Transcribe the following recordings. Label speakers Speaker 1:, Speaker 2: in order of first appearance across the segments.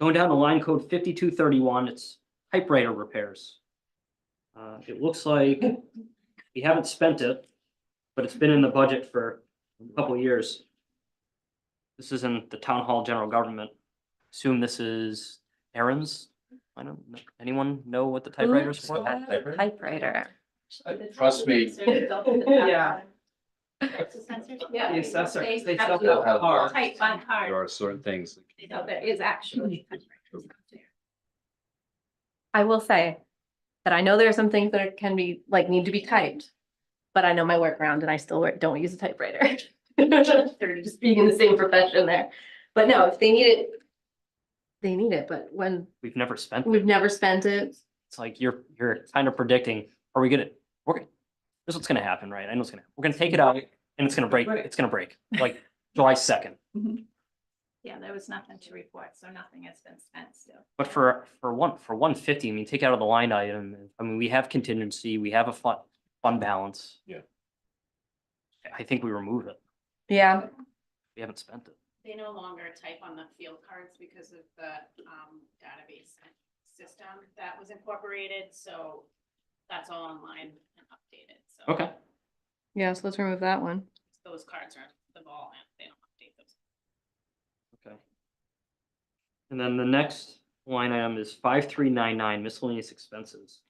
Speaker 1: Going down to line code fifty-two thirty-one, it's typewriter repairs. Uh, it looks like we haven't spent it, but it's been in the budget for a couple of years. This is in the town hall general government. Assume this is errands. I don't, know. anyone know what the typewriters
Speaker 2: Oops,
Speaker 1: for?
Speaker 2: what?
Speaker 3: Typewriter?
Speaker 2: Typewriter.
Speaker 3: Uh, Trust me.
Speaker 4: Yeah.
Speaker 5: Yeah.
Speaker 4: The assessor, they
Speaker 5: have
Speaker 4: sell
Speaker 5: to
Speaker 4: that car.
Speaker 5: Type on
Speaker 3: There
Speaker 5: card,
Speaker 3: are certain things. that-
Speaker 5: you know, there is actually. typewriters out there.
Speaker 2: I will say that I know there are some things that can be, like, need to be typed. But I know my workaround and I still work- don't use a typewriter. They're just being in the same profession there. But no, if they need it, they need it, but when
Speaker 1: We've never spent, it.
Speaker 2: we've never spent it,
Speaker 1: it's like you're, you're kind of predicting, are we gonna, we're, this is what's gonna happen, right? I know it's gonna, we're gonna take it out and it's gonna break,
Speaker 4: Right.
Speaker 1: it's gonna break, like July second.
Speaker 5: Yeah, there was nothing to report, so nothing has been spent still.
Speaker 1: But for, for one, for one fifty, I mean, take out of the line item, I mean, we have contingency, we have a fun, fund balance.
Speaker 3: Yeah.
Speaker 1: I- I think we remove it.
Speaker 2: yeah,
Speaker 1: We haven't spent it.
Speaker 5: They no longer type on the field cards because of the um database system that was incorporated, so that's all online and updated, so.
Speaker 1: Okay.
Speaker 2: yeah, so let's remove that one.
Speaker 5: Those cards are the ball and they don't update those.
Speaker 1: Okay. And then the next line item is five, three, nine, nine miscellaneous expenses.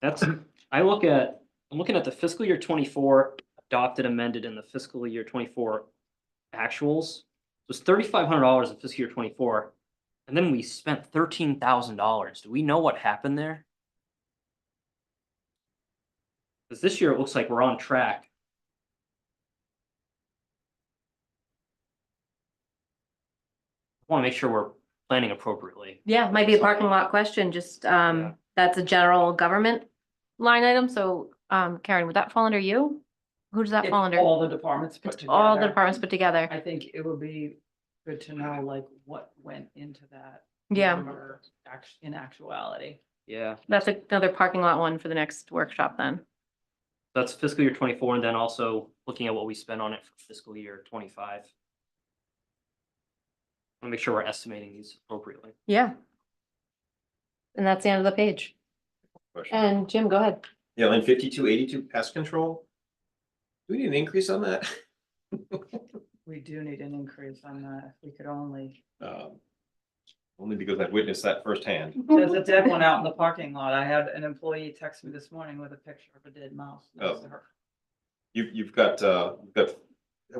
Speaker 1: That's, I look at, I'm looking at the fiscal year twenty-four adopted amended and the fiscal year twenty-four actuals. It was thirty-five hundred dollars in fiscal year twenty-four, and then we spent thirteen thousand dollars. Do we know what happened there? Cause this year it looks like we're on track. Want to make sure we're planning appropriately.
Speaker 2: Yeah, might be a parking lot question, just,
Speaker 1: Yeah.
Speaker 2: um, that's a general government line item, so, um, Karen, would that fall under you? Who does that
Speaker 4: It's
Speaker 2: fall under?
Speaker 4: All the departments put
Speaker 2: It's all the
Speaker 4: together.
Speaker 2: departments put together,
Speaker 4: I think it would be good to know like what went into that.
Speaker 2: yeah.
Speaker 4: number act- In actuality.
Speaker 1: Yeah.
Speaker 2: That's another parking lot one for the next workshop then.
Speaker 1: That's fiscal year twenty-four, and then also looking at what we spent on it for fiscal year twenty-five. Wanna make sure we're estimating these appropriately.
Speaker 2: Yeah. And that's the end of the page.
Speaker 3: Question.
Speaker 2: And Jim, go ahead.
Speaker 6: Yeah, line fifty-two eighty-two pest control. Do we need an increase on that?
Speaker 4: We do need an increase on that. If we could only,
Speaker 6: Um, Only because I've witnessed that firsthand.
Speaker 4: there's a dead one out in the parking lot. I had an employee text me this morning with a picture of a dead mouse. next to her.
Speaker 6: You've, you've got, uh, you've got,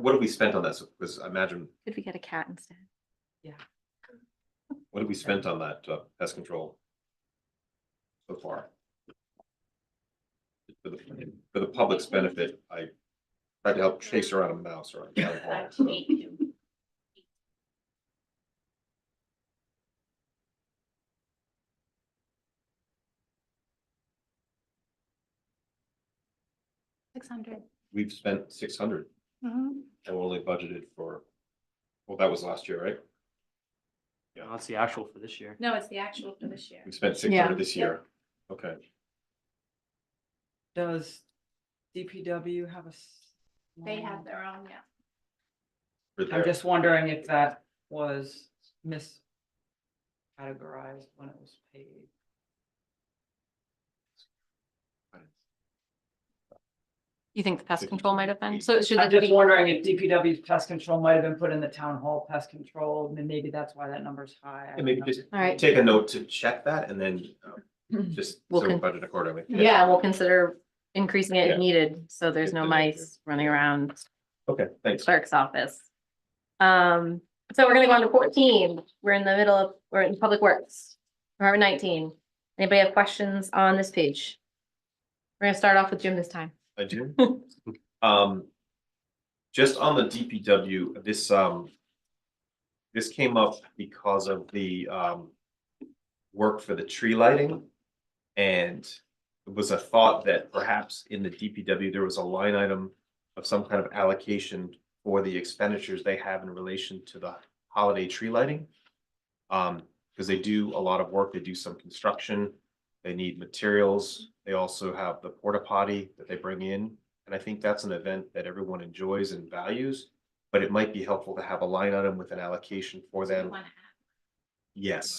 Speaker 6: what have we spent on this? Because I imagine,
Speaker 2: Could we get a cat instead?
Speaker 6: what have we spent on that uh, pest control? So far. For the, for the public's benefit, I tried to help chase around a mouse or a cat.
Speaker 5: Five
Speaker 6: or
Speaker 5: to
Speaker 6: so.
Speaker 5: eight to- Six hundred.
Speaker 6: We've spent six hundred
Speaker 5: Mm-hmm.
Speaker 6: and we're only budgeted for, well, that was last year, right?
Speaker 1: You know, That's the actual for this year.
Speaker 5: No, it's the actual for this year.
Speaker 6: We spent six
Speaker 2: Yeah.
Speaker 6: hundred this year. Okay.
Speaker 4: Does DPW have a? s-
Speaker 5: They have their own, yeah.
Speaker 6: we're
Speaker 4: I'm
Speaker 6: there.
Speaker 4: just wondering if that was miscategorized when it was paid.
Speaker 2: You think the pest control might have been? So it should
Speaker 4: I'm
Speaker 2: be
Speaker 4: just wondering if DPW's pest control might have been put in the town hall pest control, and then maybe that's why that number's high. I
Speaker 6: And maybe
Speaker 4: don't know.
Speaker 6: just
Speaker 2: All right.
Speaker 6: take a note to check that and then um, just
Speaker 2: We'll
Speaker 6: so we
Speaker 2: con-
Speaker 6: budget accordingly.
Speaker 2: Yeah, we'll consider increasing it if
Speaker 6: Yeah.
Speaker 2: needed, so there's no
Speaker 6: Good to know.
Speaker 2: mice running around
Speaker 6: Okay, thanks.
Speaker 2: clerk's office. Um, so we're gonna go on to fourteen. We're in the middle of, we're in Public Works. Department nineteen. Anybody have questions on this page? We're gonna start off with Jim this time.
Speaker 6: I do. Um, just on the DPW, this, um, this came up because of the, um, work for the tree lighting. And it was a thought that perhaps in the DPW, there was a line item of some kind of allocation for the expenditures they have in relation to the holiday tree lighting. Um, because they do a lot of work, they do some construction, they need materials, they also have the porta potty that they bring in. And I think that's an event that everyone enjoys and values, but it might be helpful to have a line item with an allocation for them.
Speaker 5: One half.
Speaker 6: Yes.